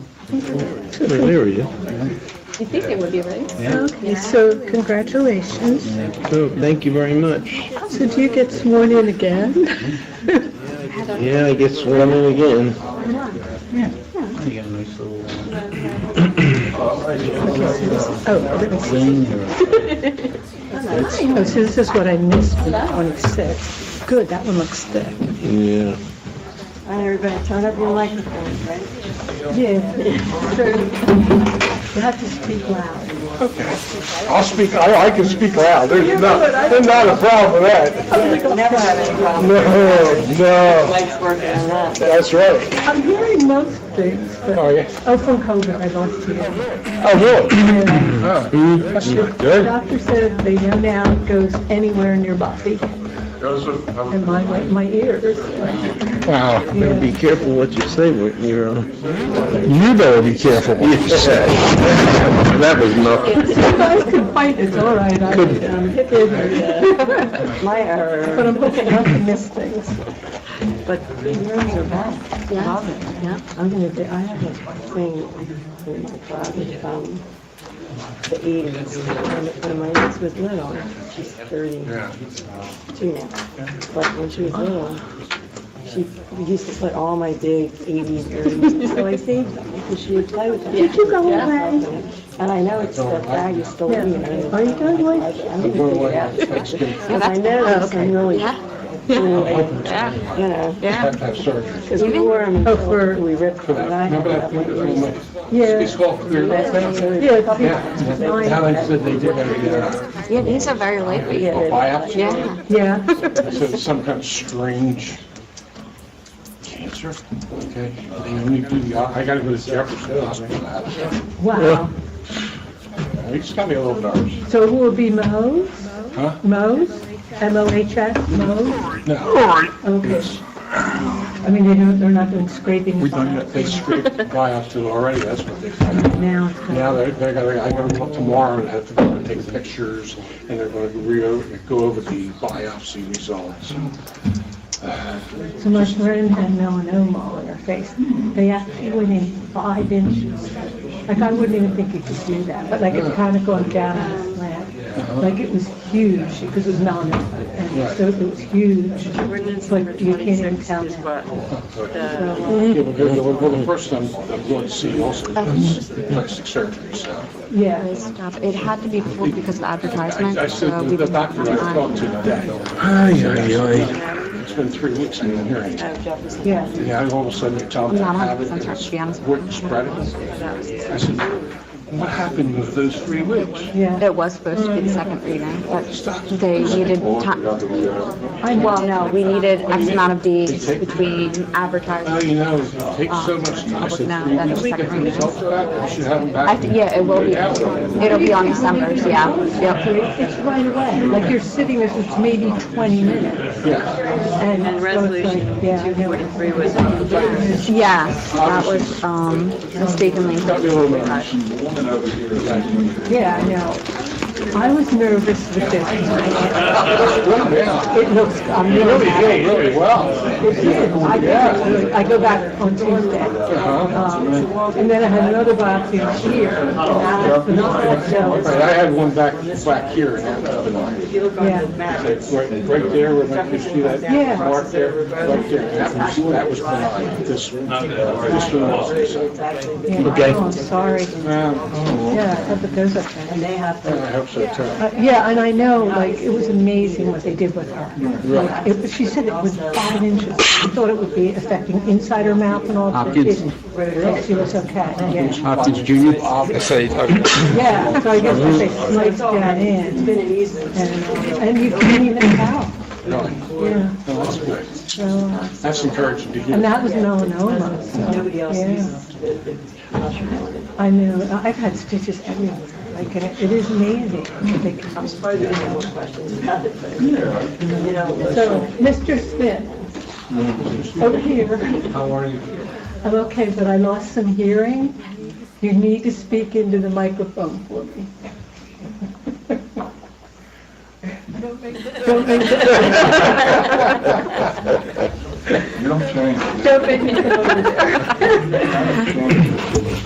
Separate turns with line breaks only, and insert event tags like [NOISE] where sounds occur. Good area.
You think they would be right?
Okay, so congratulations.
So, thank you very much.
So do you get sworn in again?
Yeah, I get sworn in again.
You got a nice little uh,
Oh,
thing here.
oh, so this is what I missed from 26. Good, that one looks thick.
Yeah.
And everybody turn up your microphones, right?
Yeah.
You have to speak loud.
I'll speak, I, I can speak loud, there's not, there's not a problem with that.
Never have any problem.
No, no,
Mike's working on that.
that's right.
I'm hearing most things, but,
Oh, yeah.
oh, from COVID, I lost you.
Oh, really? Oh, That's good. Good.
Doctor said the young now goes anywhere in your body and my, way- my ears.
Wow.
Better be careful what you say when you're on.
You better be careful what you [LAUGHS] say.
That was nothing.
You guys can fight, it's all right. I- I'm hip in there.
My error.
But I'm hoping not to miss things.
But yours are back. Yeah. I'm gonna do, I have a thing in my closet, um, the Edens. When when my niece was little, she's thirty-two now, but when she was little, she used to put all my big eighties, earrings. So I saved them because she would play with them. Did you go away? And I know it's that bag is still in there. Are you going away? I'm gonna take it out. Because I know this, I'm really, you know, I- you know.
Yeah.
Because we wore them
Oh, for-
until we ripped them. and I had that one.
Yeah,
That's really-
yeah.
How I said they did every,
Yeah, these are very lightweight.
Yeah, they're-
Yeah.
Yeah,
So some kind of strange cancer, okay? They only do the, I gotta go to Jefferson Hospital.
wow.
It's got me a little nervous.
So who will be Mo's?
Huh?
Mo's? M-O-H-S, Mo's?
No,
Okay.
it's,
I mean, they don't, they're not doing scraping.
we don't, they scraped the biopsy already, that's what they said.
Now, it's gonna-
Now, they're, they're gonna, I'm gonna come tomorrow and have to go and take pictures, and they're gonna re, go over the biopsy results.
so my friend had melanoma on her face. They actually went in five inches. Like, I wouldn't even think you could do that, but like, it kind of gone down on the slant. Like, it was huge, because it was melanoma, and so it was huge. It's like, you can't even tell now.
Yeah, but they're- well, the first I'm, I'm going to see also is plastic surgery, so.
Yeah.
Stop. It had to be pulled because of advertisement.
I
so
said,
we
to the
didn't have
doctor I
time.
talked to today,
Ay, ay,
it's been three weeks I've been hearing. it.
Yeah.
Yeah, and all of a sudden they tell me I
Not
have it,
100%
and
sure,
it's
to be honest.
wouldn't spread it. I said, what happened with those three weeks?
Yeah.
It was supposed to be the second reading, but they needed time. Well, no, we needed X amount of days between
Now,
advertising.
you know, it takes so much time, I
Oh,
said,
Now,
three
that's the
weeks, get the
second reading.
results back, I should have them
I,
back.
th- yeah, it will be, it'll be on December's, yeah. Yep.
It's right away, like, you're sitting there, it's maybe 20 minutes.
Yeah,
And resolution 243 was.
Yeah, that was, um, mistakenly.
got me a little nervous.
Yeah, I know. I was nervous with this.
Yeah,
It looks, I'm
Really,
really
did really well.
It did. I did. I go back on Tuesday.
Uh-huh.
Um, And then I had another biopsy here. and that was phenomenal. So,
Right, I had one back, back here and that was annoying.
Yeah,
Right, right there, where my- you see that
Yeah.
mark there, right there, that was, that was benign, this, one- this one wasn't, so.
yeah.
Okay.
Oh, I'm sorry.
Um,
Yeah, I thought that those are.
And they have
I
to,
hope so too.
Uh, Yeah, and I know, like, it was amazing what they did with her. Like, it- She said it was five inches. She thought it would be affecting inside her mouth and all. but it
Hopkins.
didn't. Like, She was okay, yeah.
Hopkins Junior.
Yeah, so I guess if they sliced that
it's
in,
been an easement.
and, uh, and you couldn't even tell,
Really,
yeah.
no, that's good,
So, uh,
that's encouraging to hear.
and that was melanoma, so,
Nobody else
yeah.
uses
I know, I- I've had stitches everywhere, like, and it it is amazing. what they can do.
you know,
So, Mr. Smith, over here.
How are you?
I'm okay, but I lost some hearing. You need to speak into the microphone for me. Don't make
You don't change.
Don't make me go over there.